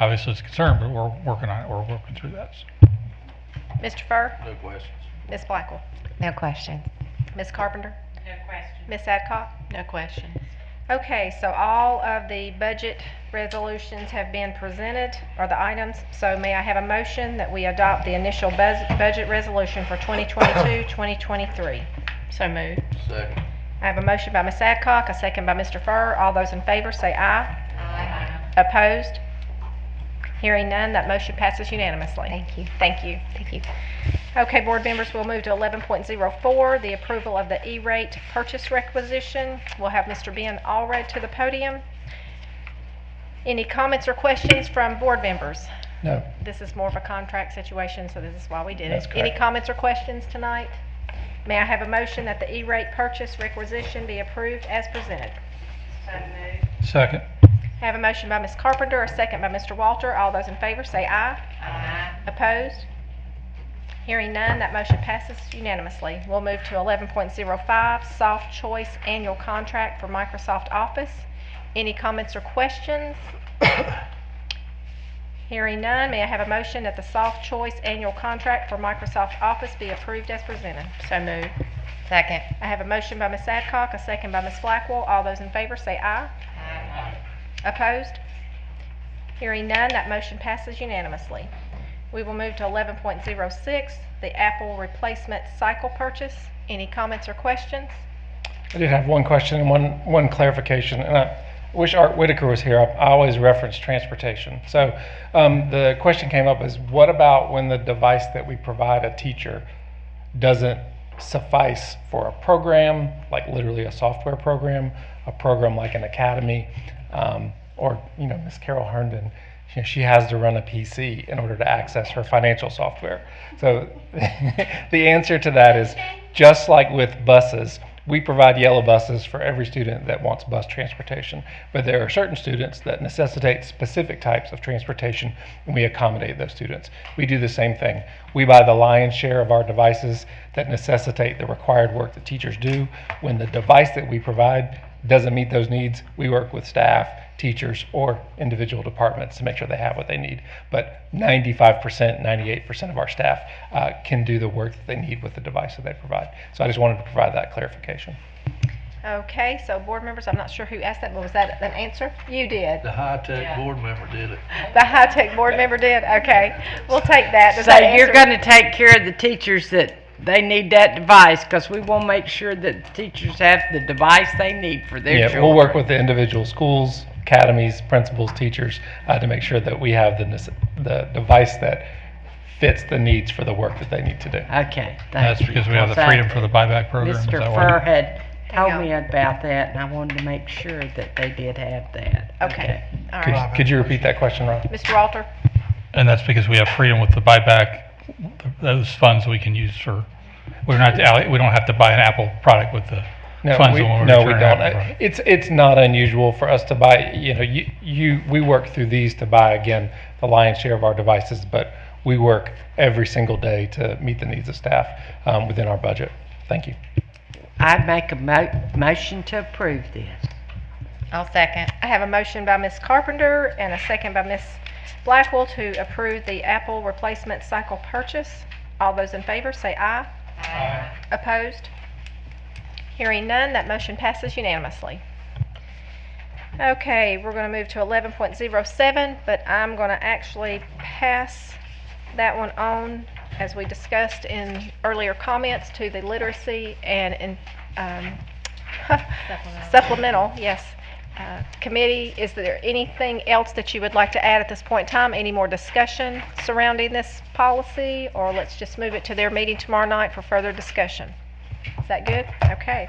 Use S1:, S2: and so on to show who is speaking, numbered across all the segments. S1: obviously it's a concern, but we're working on it, we're working through that.
S2: Mr. Furr,
S3: No questions.
S2: Ms. Blackwell,
S4: No questions.
S2: Ms. Carpenter,
S5: No question.
S2: Ms. Adcock.
S5: No question.
S2: Okay, so all of the budget resolutions have been presented, or the items. So may I have a motion that we adopt the initial bus- budget resolution for 2022, 2023?
S5: So moved.
S3: Second.
S2: I have a motion by Ms. Adcock, a second by Mr. Furr. All those in favor say aye.
S5: Aye.
S2: Opposed? Hearing none, that motion passes unanimously.
S4: Thank you.
S2: Thank you.
S4: Thank you.
S2: Okay, board members, we'll move to 11.04, the approval of the E-rate purchase requisition. We'll have Mr. Ben Allred to the podium. Any comments or questions from board members?
S6: No.
S2: This is more of a contract situation, so this is why we did it.
S6: That's
S2: Any
S6: correct.
S2: comments or questions tonight? May I have a motion that the E-rate purchase requisition be approved as presented?
S5: So moved.
S1: Second,
S2: I have a motion by Ms. Carpenter, a second by Mr. Walter. All those in favor say aye.
S5: Aye.
S2: Opposed? Hearing none, that motion passes unanimously. We'll move to 11.05, Soft Choice Annual Contract for Microsoft Office. Any comments or questions? Hearing none, may I have a motion that the Soft Choice Annual Contract for Microsoft Office be approved as presented?
S5: So moved.
S4: Second.
S2: I have a motion by Ms. Adcock, a second by Ms. Blackwell. All those in favor say aye.
S5: Aye.
S2: Opposed? Hearing none, that motion passes unanimously. We will move to 11.06, the Apple replacement cycle purchase. Any comments or questions?
S6: I did have one question and one, one clarification, and I wish Art Whitaker was here. I I always reference transportation. So um, the question came up is what about when the device that we provide a teacher doesn't suffice for a program, like literally a software program, a program like an academy, um, or you know, Miss Carol Herndon, you know, she has to run a PC in order to access her financial software. So the answer to that is just like with buses, we provide yellow buses for every student that wants bus transportation, but there are certain students that necessitate specific types of transportation, and we accommodate those students. We do the same thing. We buy the lion's share of our devices that necessitate the required work that teachers do. When the device that we provide doesn't meet those needs, we work with staff, teachers, or individual departments to make sure they have what they need. But 95%, 98% of our staff uh, can do the work that they need with the device that they provide. So I just wanted to provide that clarification.
S2: Okay, so board members, I'm not sure who asked that, but was that an answer? You did.
S3: The
S5: Yeah.
S3: high-tech board member did it.
S2: The high-tech board member did? Okay, we'll take that. Does
S7: So
S2: that answer-
S7: you're gonna take care of the teachers that they need that device, cause we will make sure that the teachers have the device they need for their
S6: Yeah,
S7: children.
S6: we'll work with the individual schools, academies, principals, teachers uh, to make sure that we have the, nece- the device that fits the needs for the work that they need to do.
S7: Okay, thank
S1: that's
S7: you.
S1: because we have the
S7: So,
S1: freedom for the buyback program. is
S7: Mr.
S1: that why?
S7: Fur had
S2: Hang
S7: told
S2: on.
S7: me about that, and I wanted to make sure that they did have that.
S2: Okay, all
S6: Could,
S2: right.
S6: could you repeat that question, Ron?
S2: Mr. Walter?
S1: And that's because we have freedom with the buyback, th- those funds we can use for, we're not, alle- we don't have to buy an Apple product with the
S6: No,
S1: funds
S6: we,
S1: when we
S6: no, we
S1: return
S6: don't.
S1: Apple
S6: Uh,
S1: product.
S6: It's, it's not unusual for us to buy, you know, you, you, we work through these to buy, again, the lion's share of our devices, but we work every single day to meet the needs of staff um, within our budget. Thank you.
S7: I make a mo- motion to approve this.
S4: I'll second.
S2: I have a motion by Ms. Carpenter and a second by Ms. Blackwell to approve the Apple replacement cycle purchase. All those in favor say aye.
S5: Aye.
S2: Opposed? Hearing none, that motion passes unanimously. Okay, we're going to move to 11.07, but I'm going to actually pass that one on, as we discussed in earlier comments, to the literacy and in- um, supplemental, yes, uh, committee. Is there anything else that you would like to add at this point in time? Any more discussion surrounding this policy? Or let's just move it to their meeting tomorrow night for further discussion? Is that good? Okay.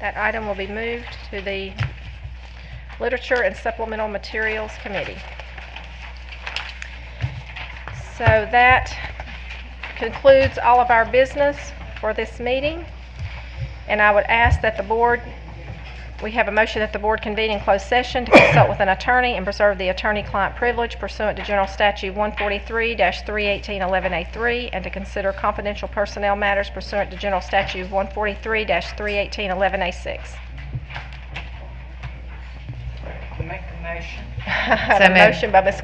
S2: That item will be moved to the Literature and Supplemental Materials Committee. So that concludes all of our business for this meeting. And I would ask that the board, we have a motion that the board convene in closed session to consult with an attorney and preserve the attorney-client privilege pursuant to General Statute 143-318-11A3 and to consider confidential personnel matters pursuant to General Statute 143-318-11A6.
S7: Make a motion.
S2: I have
S4: So
S2: a
S4: moved.
S2: motion by Ms.